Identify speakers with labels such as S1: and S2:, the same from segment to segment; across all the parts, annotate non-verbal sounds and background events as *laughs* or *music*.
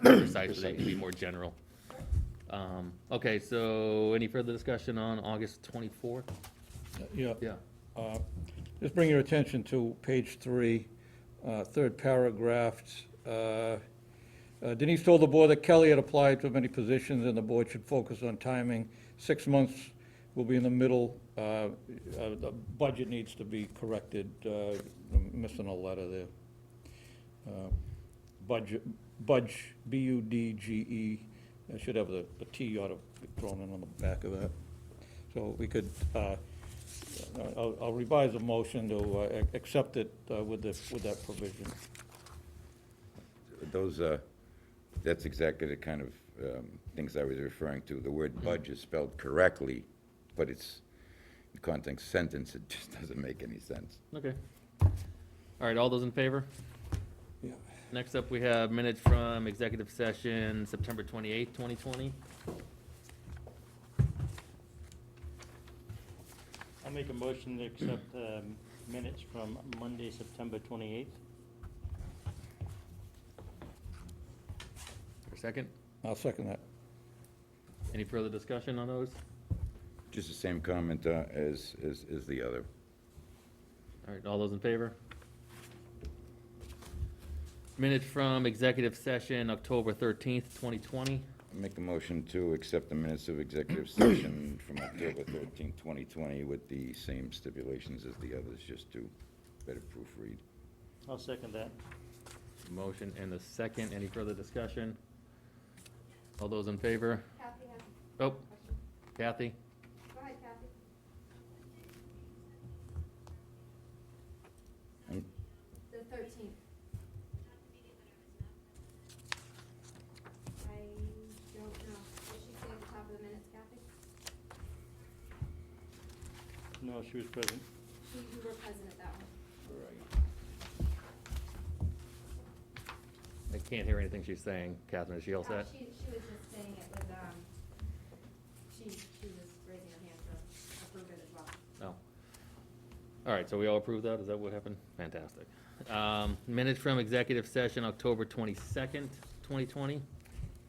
S1: precise, but it can be more general. Um, okay, so any further discussion on August twenty-fourth?
S2: Yeah,
S1: Yeah,
S2: uh, just bring your attention to page three, uh, third paragraph. Uh, uh, Denise told the board that Kelly had applied to many positions, and the board should focus on timing. Six months will be in the middle. Uh, uh, The budget needs to be corrected. Uh, I'm Missing a letter there. Uh, Budget, budge, B-U-D-G-E. E. I should have the the T ought to be thrown in on the back of that. So we could uh, I'll I'll revise the motion to uh, ac- accept it uh, with the, with that provision.
S3: Those, uh, that's exactly the kind of um, things I was referring to. The word budge is spelled correctly, but it's, in context sentence, it just *laughs* doesn't make any sense.
S1: okay. All right, all those in favor?
S2: Yeah.
S1: Next up, we have minutes from executive session, September twenty-eighth, twenty twenty.
S4: I'll make a motion to accept um, minutes from Monday, September 28th.
S1: For a second,
S2: I'll second that.
S1: any further discussion on those?
S3: Just the same comment uh, as, as, as the other.
S1: All right, all those in favor? Minutes from executive session, October thirteenth, twenty twenty.
S3: Make a motion to accept the minutes of executive session from October 13, 2020, with the same stipulations as the others, just to better proofread.
S4: I'll second that.
S1: Motion and the second, any further discussion? All those in favor?
S5: Kathy has a
S1: Oh,
S5: question.
S1: Kathy?
S5: Go ahead, Kathy.
S3: Um,
S5: The thirteenth. I don't know. Did she say at the top of the minutes, Kathy?
S4: No, she was present.
S5: You you were present at that one.
S1: I can't hear anything she's saying. Catherine, is she all
S5: Uh,
S1: set?
S5: She, she was just saying it was, um, she, she was raising her hand to approve it as well.
S1: No. All right, so we all approve that? Is that what happened? Fantastic. Um, Minutes from executive session, October twenty-second, twenty twenty.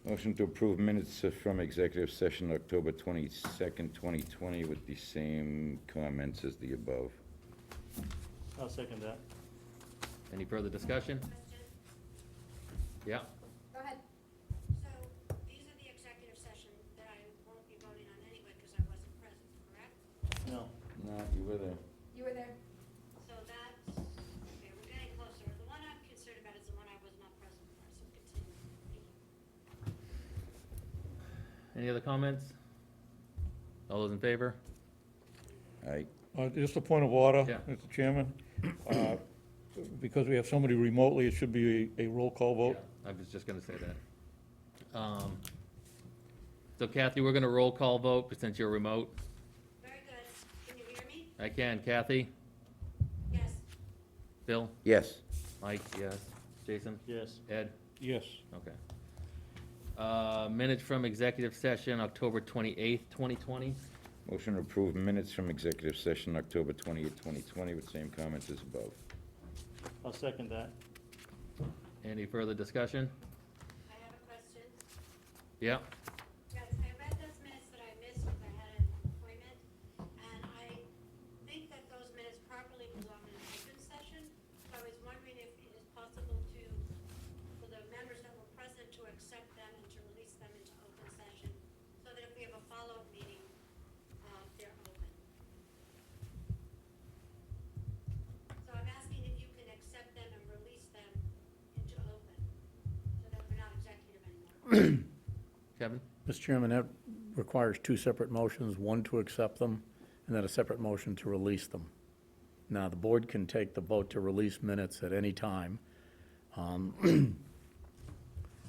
S3: Motion to approve minutes uh, from executive session, October 22nd, 2020, with the same comments as the above.
S4: I'll second that.
S1: Any further discussion? Yeah,
S5: Go ahead.
S6: So these are the executive session that I won't be voting on anyway because I wasn't present, correct?
S4: No.
S3: No, you were there.
S5: You were there.
S6: So that's, okay, we're getting closer. The one I'm concerned about is the one I was not present for, so continue.
S1: any other comments? All those in favor?
S3: Aye.
S2: Uh, Just a point of order,
S1: Yeah.
S2: Mr. Chairman. Uh, Because we have somebody remotely, it should be a a roll call vote.
S1: Yeah, I was just gonna say that. Um, So Kathy, we're gonna roll call vote, but since you're remote.
S6: Very good. Can you hear me?
S1: I can, Kathy,
S6: Yes.
S1: Bill,
S3: Yes.
S1: Mike, yes, Jason,
S4: Yes.
S1: Ed?
S2: Yes.
S1: Okay. Uh, Minutes from executive session, October 28th, 2020.
S3: Motion to approve minutes from executive session, October 28th, 2020, with same comments as above.
S4: I'll second that.
S1: Any further discussion?
S6: I have a question.
S1: Yeah?
S6: Yes, I read those minutes that I missed because I had an appointment, and I think that those minutes properly belong in an open session. So I was wondering if it is possible to, for the members that were present, to accept them and to release them into open session, so that if we have a follow-up meeting, uh, they're open. So I'm asking if you can accept them and release them into open, so that we're not executive anymore.
S1: Kevin?
S7: Mr. Chairman, that requires two separate motions, one to accept them, and then a separate motion to release them. Now, the board can take the vote to release minutes at any time. Um, *clears throat*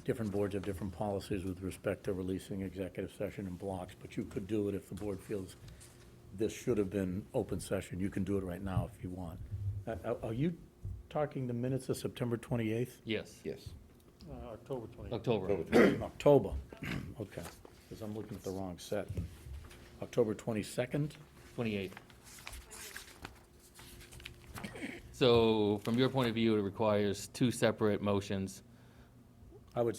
S7: Different boards have different policies with respect to releasing executive session in blocks, but you could do it if the board feels this should have been open session. You can do it right now if you want. Uh, Are are you talking the minutes of September 28th?
S1: Yes.
S3: Yes.
S4: Uh, October 28th.
S1: October.
S7: October, *clears throat* okay, because I'm looking at the wrong set. October 22nd?
S1: 28th. So from your point of view, it requires two separate motions.
S7: I would